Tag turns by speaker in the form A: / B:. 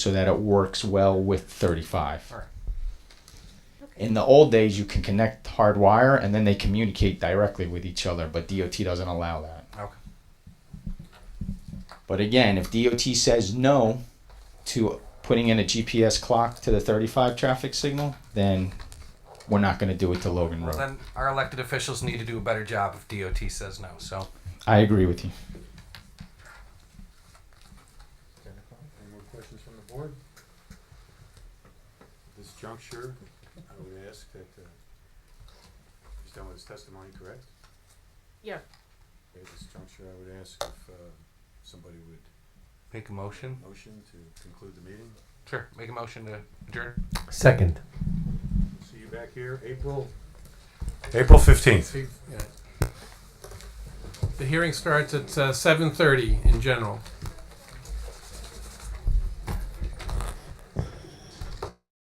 A: so that it works well with 35.
B: Alright.
A: In the old days, you can connect hard wire and then they communicate directly with each other, but DOT doesn't allow that.
B: Okay.
A: But again, if DOT says no to putting in a GPS clock to the 35 traffic signal, then we're not going to do it to Logan Road.
B: Then our elected officials need to do a better job if DOT says no. So
A: I agree with you.
C: Ten o'clock. Any more questions from the board? At this juncture, I would ask that, uh, he's done with his testimony, correct?
D: Yeah.
C: At this juncture, I would ask if, uh, somebody would
B: make a motion.
C: motion to conclude the meeting.
B: Sure, make a motion to adjourn.
E: Second.
C: See you back here, April. April fifteenth.
F: The hearing starts at seven uh, thirty in general.